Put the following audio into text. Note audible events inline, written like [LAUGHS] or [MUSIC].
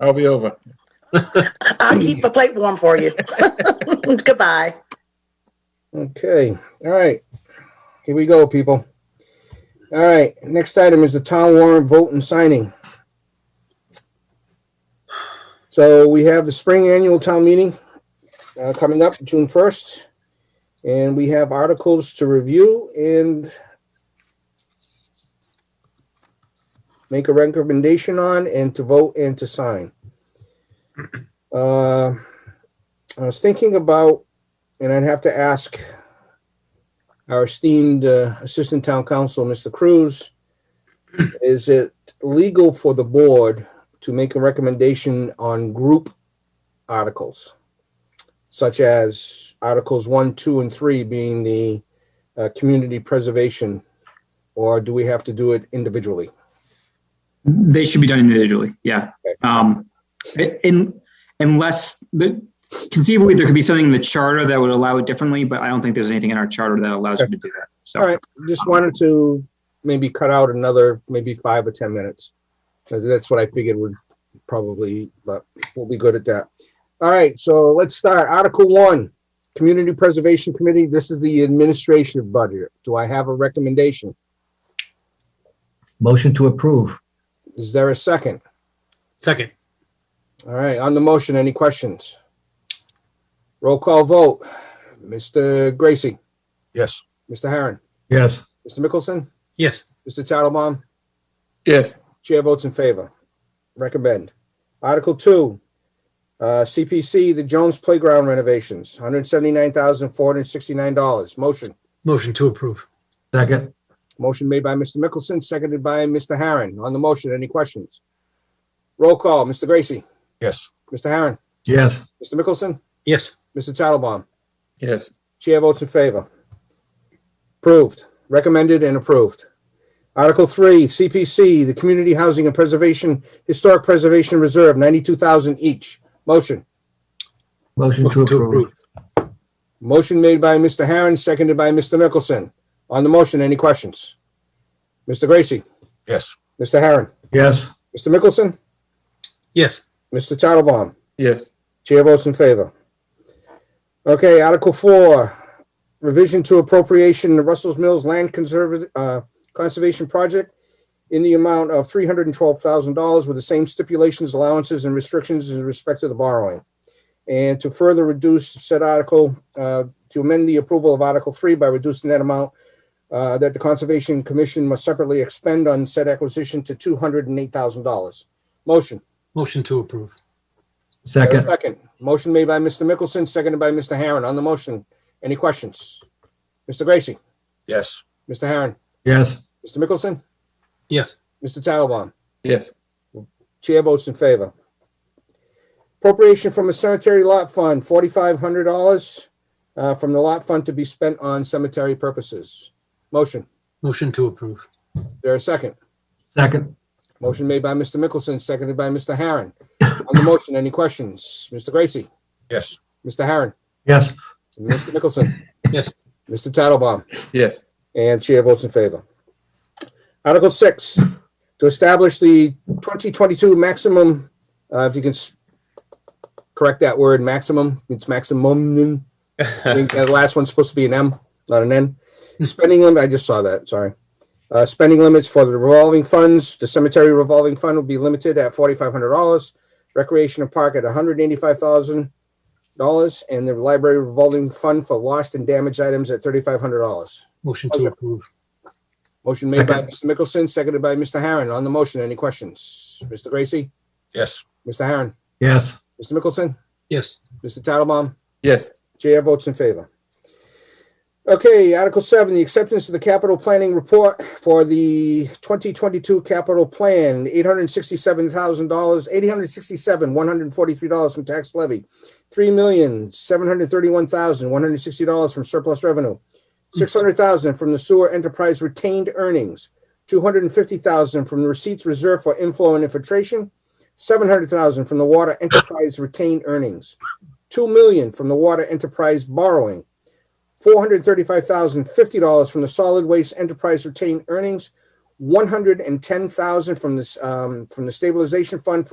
I'll be over. [LAUGHS] I'll keep a plate warm for you. [LAUGHS] Goodbye. Okay, all right. Here we go, people. All right, next item is the town warrant vote and signing. So we have the spring annual town meeting uh, coming up June first. And we have articles to review and make a recommendation on and to vote and to sign. Uh, I was thinking about and I'd have to ask our esteemed uh, Assistant Town Council, Mr. Cruz, is it legal for the board to make a recommendation on group articles? Such as Articles 1, 2, and 3 being the uh, community preservation, or do we have to do it individually? They should be done individually, yeah. Okay. Um, in, unless the, conceivably, there could be something in the charter that would allow it differently, but I don't think there's anything in our charter that allows you to do that. All So, right, just wanted to maybe cut out another, maybe five or 10 minutes. So That's what I figured would probably, but we'll be good at that. All right, so let's start. Article one, Community Preservation Committee. This is the administration budget. Do I have a recommendation? Motion to approve. Is there a second? Second. All right, on the motion, any questions? Roll call vote. Mr. Gracie, Yes. Mr. Harron, Yes. Mr. Mickelson, Yes. Mr. Tattlebaum. Yes. Chair votes in favor. Recommend. Article two, uh, CPC, the Jones Playground renovations, hundred seventy-nine thousand, four hundred sixty-nine dollars. Motion. Motion to approve. Second. Motion made by Mr. Mickelson, seconded by Mr. Harron. On the motion, any questions? Roll call, Mr. Gracie, Yes. Mr. Harron, Yes. Mr. Mickelson, Yes. Mr. Tattelbaum. Yes. Chair votes in favor. Approved, recommended and approved. Article three, CPC, the Community Housing and Preservation, Historic Preservation Reserve, ninety-two thousand each. Motion. Motion to Motion to approve. approve. Motion made by Mr. Harron, seconded by Mr. Mickelson. On the motion, any questions? Mr. Gracie, Yes. Mr. Harron, Yes. Mr. Mickelson, Yes. Mr. Tattelbaum. Yes. Chair votes in favor. Okay, Article Four, revision to appropriation the Russell's Mills Land Conserva- uh, Conservation Project in the amount of three hundred and twelve thousand dollars with the same stipulations, allowances, and restrictions in respect to the borrowing. And to further reduce said article, uh, to amend the approval of Article Three by reducing that amount uh, that the Conservation Commission must separately expend on said acquisition to two hundred and eight thousand dollars. Motion. Motion to approve. Second. Second. Motion made by Mr. Mickelson, seconded by Mr. Harron. On the motion, any questions? Mr. Gracie, Yes. Mr. Harron, Yes. Mr. Mickelson, Yes. Mr. Tattelbaum. Yes. Chair votes in favor. Appropriation from a cemetery lot fund, forty-five hundred dollars uh, from the lot fund to be spent on cemetery purposes. Motion. Motion to approve. There a second? Second. Motion made by Mr. Mickelson, seconded by Mr. Harron. On the motion, any questions? Mr. Gracie, Yes. Mr. Harron, Yes. Mr. Mickelson. Yes. Mr. Tattelbaum. Yes. And chair votes in favor. Article six, to establish the 2022 maximum, uh, if you can s- correct that word, maximum, it's maximum. I think that last one's supposed to be an M, not an N. Spending limit, I just saw that, sorry. Uh, Spending limits for the revolving funds, the cemetery revolving fund will be limited at $4,500. Recreation and park at $185,000. And the library revolving fund for lost and damaged items at $3,500. Motion to approve. Motion made by Mr. Mickelson, seconded by Mr. Harron. On the motion, any questions? Mr. Gracie, Yes. Mr. Harron, Yes. Mr. Mickelson, Yes. Mr. Tattelbaum, Yes. Chair votes in favor. Okay, Article Seven, the acceptance of the capital planning report for the twenty twenty-two capital plan, eight hundred and sixty-seven thousand dollars, eight hundred and sixty-seven, one hundred and forty-three dollars from tax levy, three million, seven hundred and thirty-one thousand, one hundred and sixty dollars from surplus revenue, six hundred thousand from the sewer enterprise retained earnings, two hundred and fifty thousand from the receipts reserved for inflow and infiltration, seven hundred thousand from the water enterprise retained earnings, 2 million from the water enterprise borrowing, $435,050 from the solid waste enterprise retained earnings, one hundred and ten thousand from this, um, from the stabilization fund for